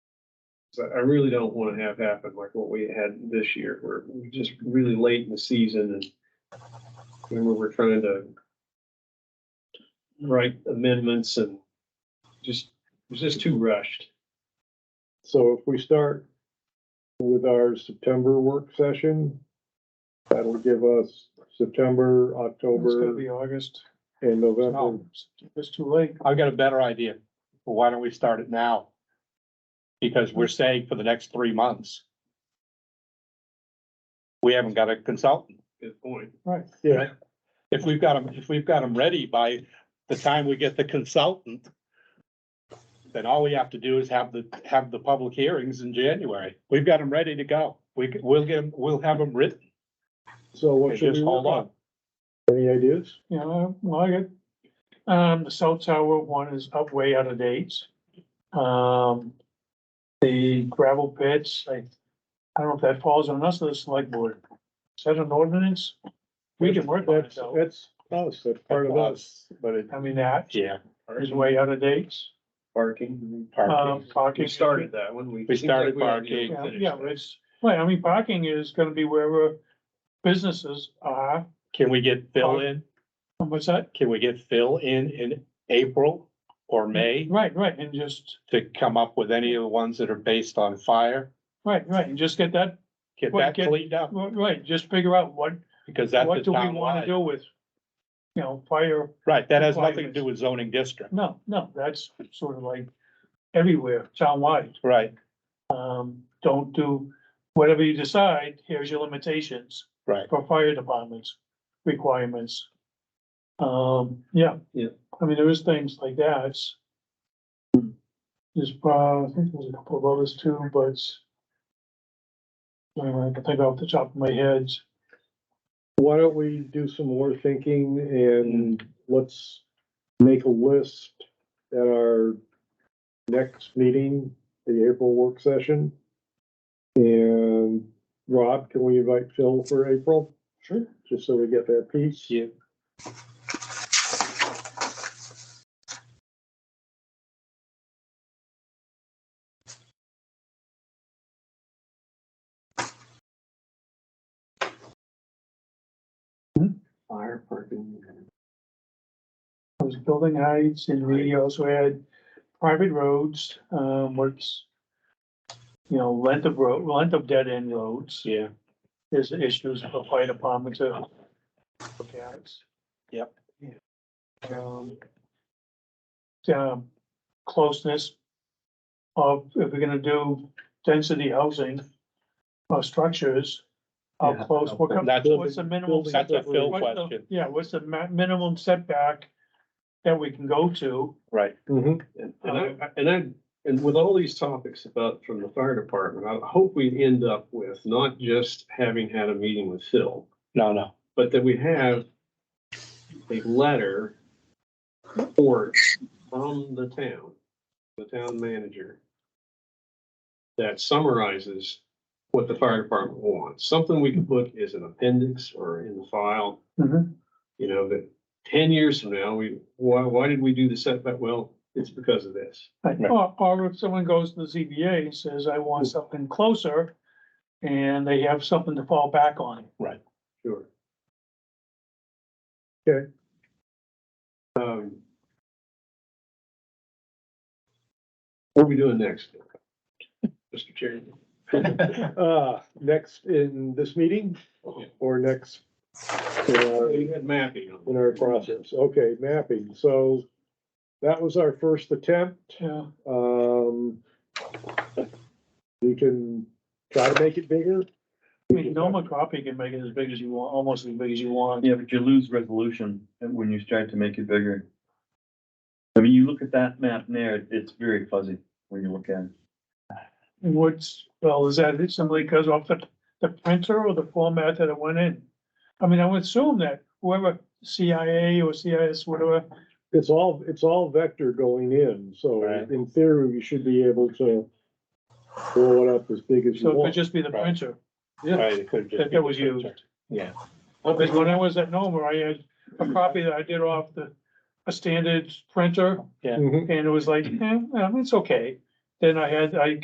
So I really don't want to have happen like what we had this year, where we're just really late in the season and remember we're trying to write amendments and just, it was just too rushed. So if we start with our September work session, that'll give us September, It's gonna October, be August. and November. No, it's too late. I've got a better idea. Well, Why don't we start it now? Because we're saying for the next three months. We haven't got a consultant. Good point. Right. Yeah, If we've got them, if we've got them ready by the time we get the consultant, then all we have to do is have the, have the public hearings in January. We've got them ready to go. We, c- we'll get them, we'll have them written. so what should Just we hold work on. on? Any ideas? You know, well, I get, um, the cell tower one is up way out of date. Um, the gravel pits, I, I don't know if that falls on us or the select board. Is that an ordinance? We can work on it That's, though. that's us, that's part of us, but it, I mean, that Yeah. is way out of date. Parking. Um, parking. parking. We started that one. We started parking. Yeah, yeah, but it's, well, I mean, parking is gonna be wherever businesses are. Can we get Phil in? And What's that? Can we get Phil in, in April or Mm-hmm. May? Right, right, and just, to come up with any of the ones that are based on fire. right, right, and just get that, Get Well, that get- cleaned up, right, right, just figure out what because that's What the do we town wanna wide. do with, you know, fire, Right, that has nothing to requirements? do with zoning district, no, no, that's sort of like everywhere, townwide. right, Um, don't do, whatever you decide, here's your limitations right. for fire departments, requirements. Um, yeah. Yeah. I mean, there is things like that. There's, uh, I think there's a couple of others too, but uh, I don't can think off the top of my head. why don't we do some more thinking and let's make a list at our next meeting, the April work session. And Rob, can we invite Phil for April? Sure. Just so we get that piece. Yeah. Fire parking. It was building heights and we also had private roads, um, what's, you know, length of road, length of dead end roads Yeah, is issues for fire department to look at. Yep. Um, um, closeness of, if we're gonna do density housing or structures, how Yeah, close, what comes, that's- what's the minimum building- setback? that's a Phil What's the- question, Yeah, what's the ma- minimum setback that we can go to? right, Mhm. And and I, and I, and with all these topics about from the fire department, I hope we end up with not just having had a meeting with Phil, no, no, but that we have a letter or from the town, the town manager that summarizes what the fire department wants, something we can put as an appendix or in the file you know, that ten years from now, we, why, why did we do the setback? Well, it's because of this. Right, Or, or if someone goes to the ZBA and says, I want something closer, and they have something to fall back on. Sure. Okay. Um. What are we doing next? Mr. Chairman? Uh, next in this meeting or next? uh, We had mapping. on- In our process, okay, mapping, so that was our first attempt. Yeah, Um, you can try to make it bigger. I mean, Noma copy can make it as big as you want, almost as big as you want. Yeah, but you lose resolution when you start to make it bigger. I mean, you look at that map there, it's very fuzzy when you look at it. What's, well, is that simply because of the, the printer or the format that it went in? I mean, I would assume that whoever CIA or CIS, whatever, It's all, it's all vector going in, so Right. in theory, you should be able to blow it up as big as you so it could want. just be the Right. printer. right, it could just. That- that was used. Yeah, Because when I was at Noma, I had a copy that I did off the, a standard printer, Mhm. and it was like, eh, um, it's okay. Then I had, I